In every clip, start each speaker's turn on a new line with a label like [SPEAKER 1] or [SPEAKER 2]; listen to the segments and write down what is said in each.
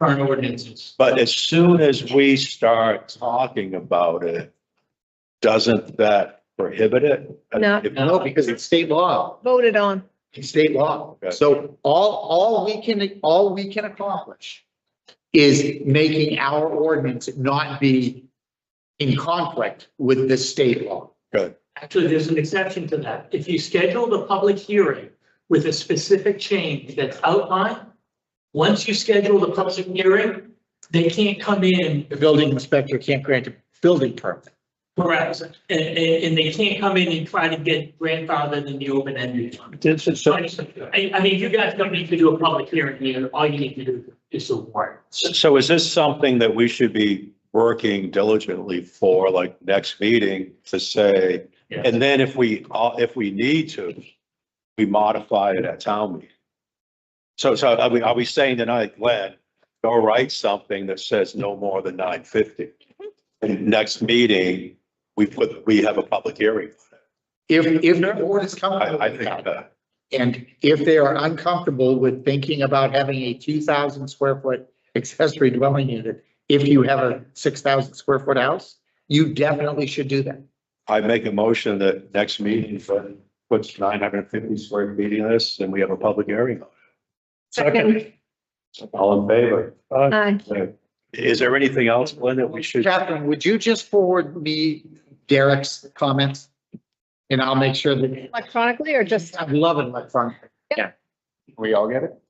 [SPEAKER 1] current ordinances.
[SPEAKER 2] But as soon as we start talking about it, doesn't that prohibit it?
[SPEAKER 3] No.
[SPEAKER 4] No, because it's state law,
[SPEAKER 3] voted on.
[SPEAKER 4] it's state law.
[SPEAKER 2] Okay.
[SPEAKER 4] So all, all we can, all we can accomplish is making our ordinance not be in conflict with the state law.
[SPEAKER 2] Good,
[SPEAKER 1] Actually, there's an exception to that. If you schedule the public hearing with a specific change that's outlined, once you schedule the public hearing, they can't come in,
[SPEAKER 4] The building inspector can't grant a building permit.
[SPEAKER 1] correct, and, and, and they can't come in and try to get grandfathered in the open-ended one.
[SPEAKER 2] This is- so,
[SPEAKER 1] I, I mean, you guys don't need to do a public hearing here. All you need to do is a warrant.
[SPEAKER 2] so is this something that we should be working diligently for, like next meeting to say?
[SPEAKER 1] Yeah.
[SPEAKER 2] And then if we, all- if we need to, we modify it at town meeting. So, so are we, are we saying tonight, Glenn, go write something that says no more than nine fifty? And next meeting, we put, we have a public hearing.
[SPEAKER 4] If, if the board is comfortable
[SPEAKER 2] I, I
[SPEAKER 4] with
[SPEAKER 2] think
[SPEAKER 4] that,
[SPEAKER 2] that,
[SPEAKER 4] and if they are uncomfortable with thinking about having a two thousand square foot accessory dwelling unit, if you have a six thousand square foot house, you definitely should do that.
[SPEAKER 2] I make a motion that next meeting for, puts nine hundred and fifty square feet in this, and we have a public hearing on
[SPEAKER 3] Second.
[SPEAKER 2] it. All in favor?
[SPEAKER 5] Uh,
[SPEAKER 3] Aye.
[SPEAKER 2] Is there anything else, Glenn, that we should?
[SPEAKER 4] Catherine, would you just forward me Derek's comments? And I'll make sure that,
[SPEAKER 3] Electronically or just,
[SPEAKER 4] I'm loving my front.
[SPEAKER 3] Yeah.
[SPEAKER 4] We all get it?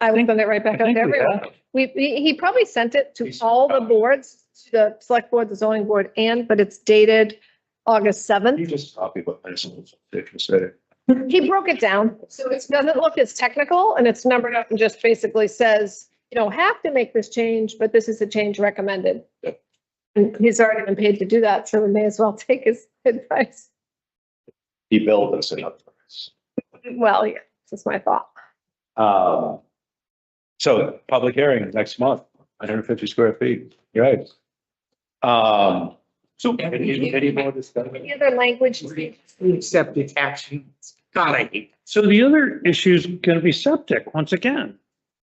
[SPEAKER 3] I would send it right back out to everyone. We, he he probably sent it to all the boards, to the select board, the zoning board, and, but it's dated August
[SPEAKER 2] You
[SPEAKER 3] seventh.
[SPEAKER 2] just copy what I said.
[SPEAKER 3] He broke it down, so it doesn't look as technical and it's numbered up and just basically says, you don't have to make this change, but this is the change recommended. And he's already been paid to do that, so we may as well take his advice.
[SPEAKER 2] He billed us enough.
[SPEAKER 3] Well, yeah, that's my thought.
[SPEAKER 2] Um, so public hearing next month, nine hundred and fifty square feet, You're right? Um, so any, any more discussion?
[SPEAKER 3] Any other language?
[SPEAKER 4] Accept its actions. God, I hate.
[SPEAKER 5] So the other issue is gonna be septic once again.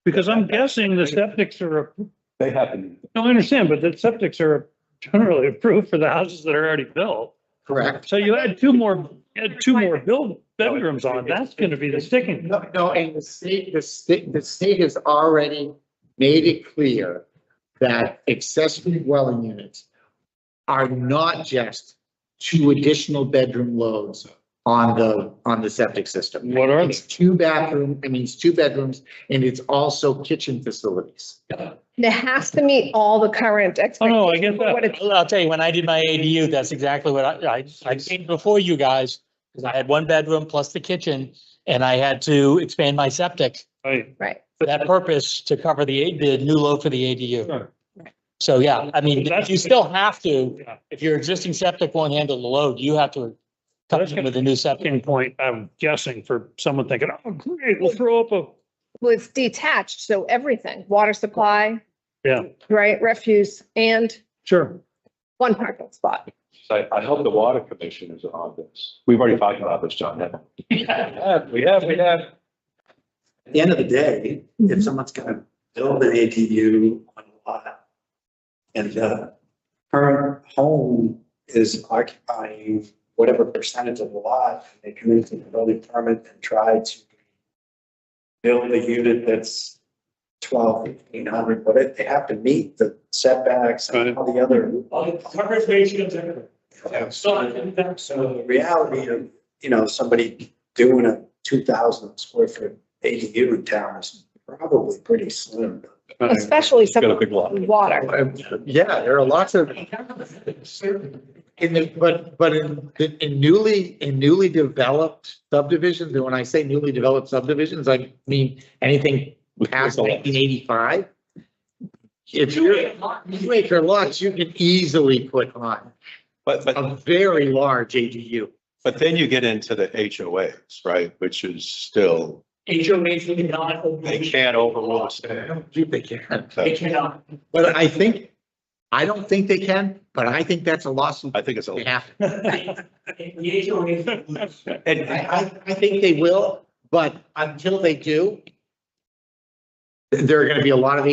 [SPEAKER 5] Because I'm guessing the septics are,
[SPEAKER 2] They happen.
[SPEAKER 5] no, I understand, but the septics are generally approved for the houses that are already built.
[SPEAKER 4] Correct.
[SPEAKER 5] So you add two more, add two more build bedrooms on, that's gonna be the sticking.
[SPEAKER 4] No, no, and the state, the state, the state has already made it clear that accessory dwelling units are not just two additional bedroom loads on the, on the septic system.
[SPEAKER 5] What are they?
[SPEAKER 4] It's two bathroom, I mean, it's two bedrooms, and it's also kitchen facilities.
[SPEAKER 3] It has to meet all the current
[SPEAKER 5] Oh,
[SPEAKER 3] expectations.
[SPEAKER 5] no, I get
[SPEAKER 3] for what
[SPEAKER 5] that.
[SPEAKER 3] it's-
[SPEAKER 6] Well, I'll tell you, when I did my ADU, that's exactly what I, I, I came before you guys. Cause I had one bedroom plus the kitchen and I had to expand my septic
[SPEAKER 5] Right.
[SPEAKER 3] Right.
[SPEAKER 6] for that purpose to cover the, A- the new load for the ADU.
[SPEAKER 5] Sure.
[SPEAKER 6] So, yeah, I mean,
[SPEAKER 5] That's-
[SPEAKER 6] you still have to,
[SPEAKER 5] Yeah.
[SPEAKER 6] if your existing septic won't handle the load, you have to come
[SPEAKER 5] That's
[SPEAKER 6] in
[SPEAKER 5] gonna
[SPEAKER 6] with
[SPEAKER 5] be
[SPEAKER 6] a new
[SPEAKER 5] a
[SPEAKER 6] septic.
[SPEAKER 5] sticking point, I'm guessing, for someone thinking, oh, great, we'll throw up a,
[SPEAKER 3] Well, it's detached, so everything, water supply.
[SPEAKER 5] Yeah.
[SPEAKER 3] Right, refuse and
[SPEAKER 5] sure.
[SPEAKER 3] one parking spot.
[SPEAKER 2] So I hope the water commission is on this. We've already talked about this, John. haven't we? We have, we have.
[SPEAKER 7] At the end of the day, if someone's gonna build an ADU on a lot and the current home is occupying whatever percentage of the lot, and they come into the building permit and try to build a unit that's twelve, fifteen hundred, but it, they have to meet the setbacks and all the other.
[SPEAKER 1] All the coverage ratios, everything. So,
[SPEAKER 7] So the reality of, you know, somebody doing a two thousand square foot ADU in town is probably pretty slim.
[SPEAKER 3] Especially
[SPEAKER 2] Got a
[SPEAKER 3] some
[SPEAKER 2] big lot.
[SPEAKER 3] water.
[SPEAKER 4] Uh, Yeah, there are lots of, in the, but, but in, in newly, in newly developed subdivisions, and when I say newly developed subdivisions, I mean anything past nineteen eighty-five. If you're two acre lots, you can easily put on
[SPEAKER 2] But, but
[SPEAKER 4] a very large ADU.
[SPEAKER 2] But then you get into the HOAs, right, which is still,
[SPEAKER 1] HOAs cannot. overrule-
[SPEAKER 2] they can't overrule the
[SPEAKER 4] I
[SPEAKER 2] state.
[SPEAKER 4] don't think they can,
[SPEAKER 1] They
[SPEAKER 2] So
[SPEAKER 1] cannot.
[SPEAKER 4] but I think, I don't think they can, but I think that's a lawsuit.
[SPEAKER 2] I think it's,
[SPEAKER 4] They
[SPEAKER 2] a
[SPEAKER 4] have to.
[SPEAKER 1] The HOAs.
[SPEAKER 4] I, I, I think they will, but until they do, there are gonna be a lot of